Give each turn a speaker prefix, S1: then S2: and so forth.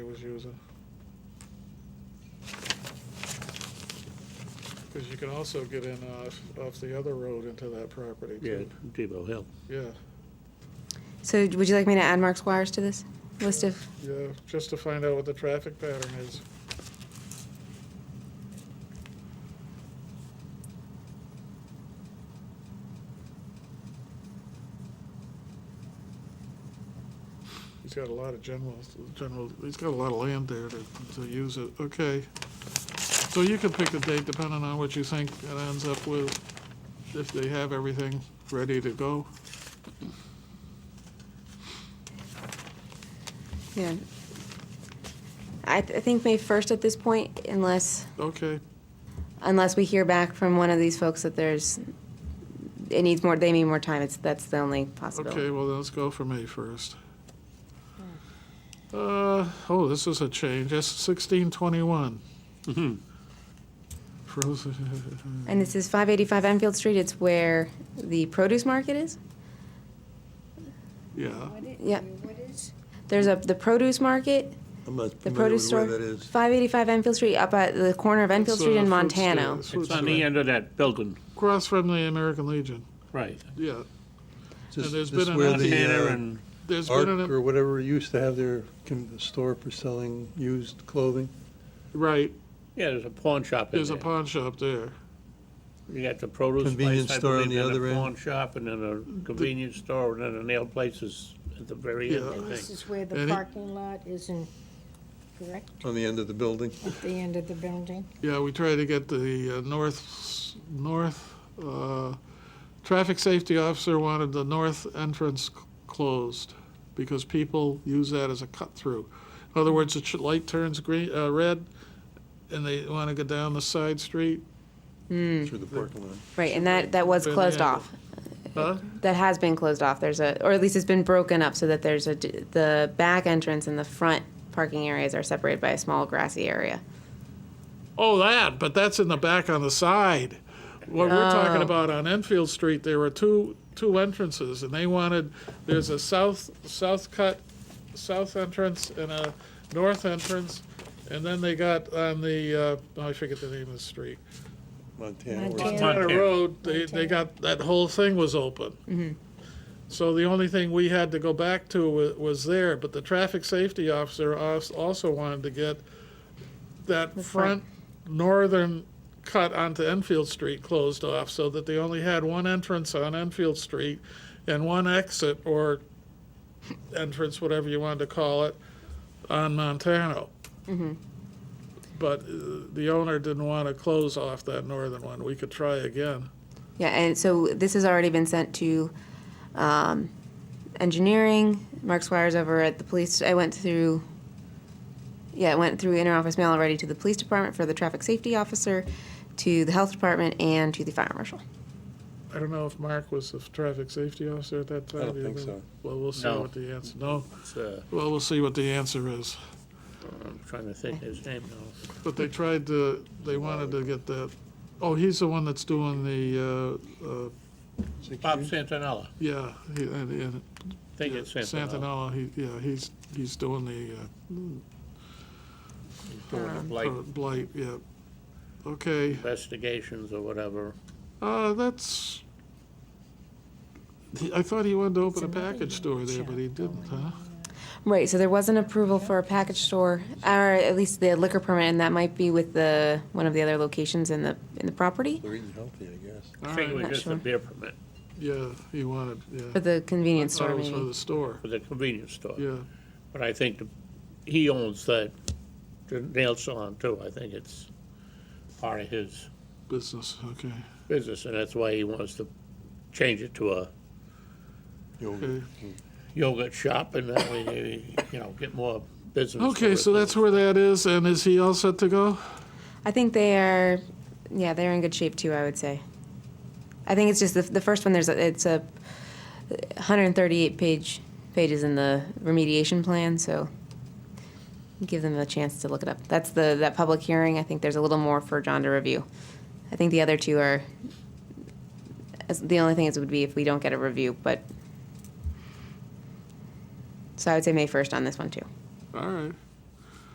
S1: was using. Because you can also get in off, off the other road into that property
S2: Yeah,
S1: too.
S2: Depot Hill.
S1: Yeah,
S3: So would you like me to add Mark Squires to this list of?
S1: yeah, just to find out what the traffic pattern is. He's got a lot of general, general, he's got a lot of land there to, to use it, okay. So you can pick a date depending on what you think it ends up with, if they have everything ready to go.
S3: Yeah. I, th- I think May 1st at this point, unless,
S1: Okay,
S3: unless we hear back from one of these folks that there's, it needs more, they need more time, it's, that's the only
S1: Okay,
S3: possibility.
S1: well, let's go for May first.
S3: Hmm.
S1: Uh, oh, this is a change, S sixteen twenty-one. Frozen,
S3: And this is 585 Enfield Street, it's where the produce market is?
S1: yeah,
S3: Yeah. There's a, the produce market,
S4: I'm not
S3: the
S4: familiar
S3: produce
S4: with
S3: store.
S4: where that is.
S3: 585 Enfield Street, up at the corner of Enfield
S1: It's,
S3: Street
S1: uh,
S3: and
S1: fruit
S3: Montano.
S1: stand.
S2: It's on the end of that building,
S1: across from the American Legion,
S2: right.
S1: yeah.
S4: This-
S1: there's
S4: this
S1: been an
S4: where the,
S2: Montana
S4: uh,
S2: and,
S1: There's
S4: Arc
S1: been, an-
S4: or whatever used to have their con- store for selling used clothing.
S1: right,
S2: yeah, there's a pawn shop in
S1: there's a
S2: there.
S1: pawn shop there.
S2: You got the produce
S4: Convenience
S2: place, I
S4: store on
S2: believe,
S4: the
S2: then
S4: other
S2: a
S4: end.
S2: pawn shop, and then a convenience store, and then a nail place is at the very end,
S1: Yeah.
S2: I
S5: And this
S2: think.
S5: is where the
S1: Any-
S5: parking lot isn't correct,
S4: On the end of the building.
S5: at the end of the building.
S1: Yeah, we try to get the uh, north, north, uh, traffic safety officer wanted the north entrance c- closed because people use that as a cut-through. In other words, the ch- light turns green, uh, red, and they want to go down the side street.
S3: Hmm.
S4: Through the parking lot.
S3: Right, and that, that was
S1: Where they
S3: closed
S1: have it.
S3: off.
S1: Huh?
S3: that has been closed off. There's a, or at least it's been broken up so that there's a, d- the back entrance and the front parking areas are separated by a small grassy area.
S1: Oh, that, but that's in the back on the side. What we're talking about on Enfield Street, there were two, two entrances, and they wanted, there's a south, south cut, south entrance and a north entrance, and then they got on the, uh, oh, I forget the name of the street.
S4: Montana. where-
S5: Montana.
S1: Montana
S2: Montana.
S1: Road, they, they got, that whole thing was open. So the only thing we had to go back to was, was there, but the traffic safety officer als- also wanted to get that front
S3: front.
S1: northern cut onto Enfield Street closed off, so that they only had one entrance on Enfield Street and one exit or entrance, whatever you wanted to call it, on Montano. But uh, the owner didn't want to close off that northern one. We could try again.
S3: Yeah, and so this has already been sent to um, engineering. Mark Squires over at the police. I went through. Yeah, I went through interoffice mail already to the police department for the traffic safety officer, to the health department, and to the fire marshal.
S1: I don't know if Mark was the traffic safety officer at that time.
S4: I don't
S1: Do you
S4: think
S1: remember?
S4: so.
S1: Well, we'll see
S2: No.
S1: what the answer, no,
S2: It's, uh,
S1: well, we'll see what the answer is.
S2: I'm trying to think his name now.
S1: But they tried to, they wanted to get that, oh, he's the one that's doing the, uh, uh,
S2: Bob Santinella,
S1: yeah, he, and, and.
S2: I think it's Santinella.
S1: Santinella, he, yeah, he's, he's doing the,
S2: He's
S5: Uh-huh.
S2: doing
S1: uh,
S2: like
S1: uh, blight, yeah. Okay,
S2: investigations or whatever.
S1: uh, that's, I thought he wanted to open a
S5: It's another
S1: package store there,
S5: shop
S1: but he didn't, huh?
S3: Right, so there was an approval for a package store, or at least the liquor permit, and that might be with the, one of the other locations in the, in the property,
S4: They're eating healthy, I guess.
S2: I think it was
S3: Not
S2: just a
S3: sure.
S2: beer permit
S1: Yeah, he wanted, yeah.
S3: for the convenience
S1: Thought
S3: store
S1: it was For
S3: maybe.
S1: the store,
S2: for the convenience store.
S1: yeah.
S2: But I think the- he owns that, the nail salon too. I think it's part of his
S1: Business, okay.
S2: business, and that's why he wants to change it to a
S4: Yogurt.
S1: Okay,
S2: yogurt shop, and that way, they, you know, get more business.
S1: Okay,
S2: for it.
S1: so that's where that is, and is he all set to go?
S3: I think they are, yeah, they're in good shape too, I would say. I think it's just the, the first one, there's, a it's a hundred and thirty-eight page, pages in the remediation plan, so give them a chance to look it up. That's the, that public hearing, I think there's a little more for John to review. I think the other two are, as- the only thing is would be if we don't get a review, but. So I would say May first on this one too.
S1: All right,